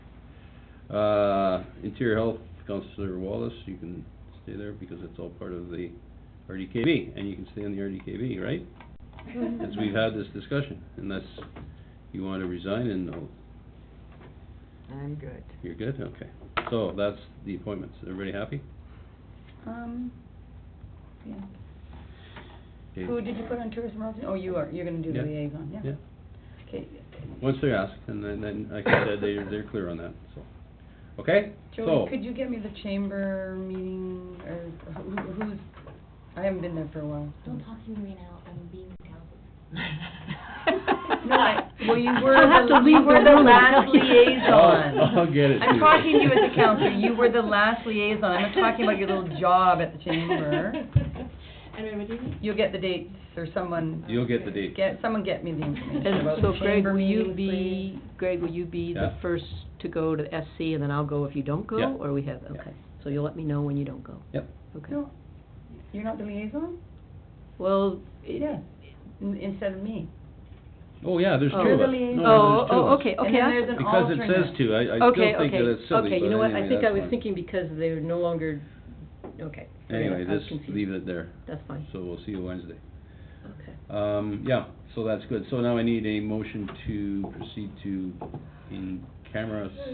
Uh, Interior Health, Counselor Wallace, you can stay there because it's all part of the RDKB, and you can stay on the RDKB, right? Mm-hmm. As we've had this discussion, unless you want to resign and, no, I'm good. you're good, okay. So that's the appointments. Everybody happy? Um, yeah. Okay. Who did you put on tourism officer? Oh, you are, you're gonna do Yeah. liaison, yeah? Yeah. Okay. Once they're asked, and then, then, like I said, they, they're clear on that, so. Okay? So, Joey, could you get me the chamber meeting, or who, who's, I haven't been there for a while. so- Don't talk to me right now, I'm being held. No, I, well, you were I'll have the, to you leave were the the room. last liaison. I'll- I'll get it to I'm you. talking to you as a counselor, you were the last liaison, I'm not talking about your little job at the chamber. Anyway, what do you mean? You'll get the dates, or someone, you'll get the date. get, someone get me the information And about so the Greg, chamber will you meeting, be, Greg, will you be the Yeah. first to go to SC and then I'll go if you don't go? Yeah. Or we have, Yeah. okay. So you'll let me know when you don't go? Yep. Okay. No, you're not the liaison? Well, it- Yeah, In- instead of me. Oh, yeah, there's two Oh. of us. You're the liaison. No, oh, there's two of oh, us. okay, okay. And then I- there's an Because it says alternate. two, I, I still Okay, think that it's okay, silly, okay, you know but what, I anyway, think that's I was fine. thinking because they're no longer, okay. Forget it. Anyway, I was just confused. leave it there, That's fine, so we'll see you Wednesday. okay. Um, yeah, so that's good, so now I need a motion to proceed to in-camera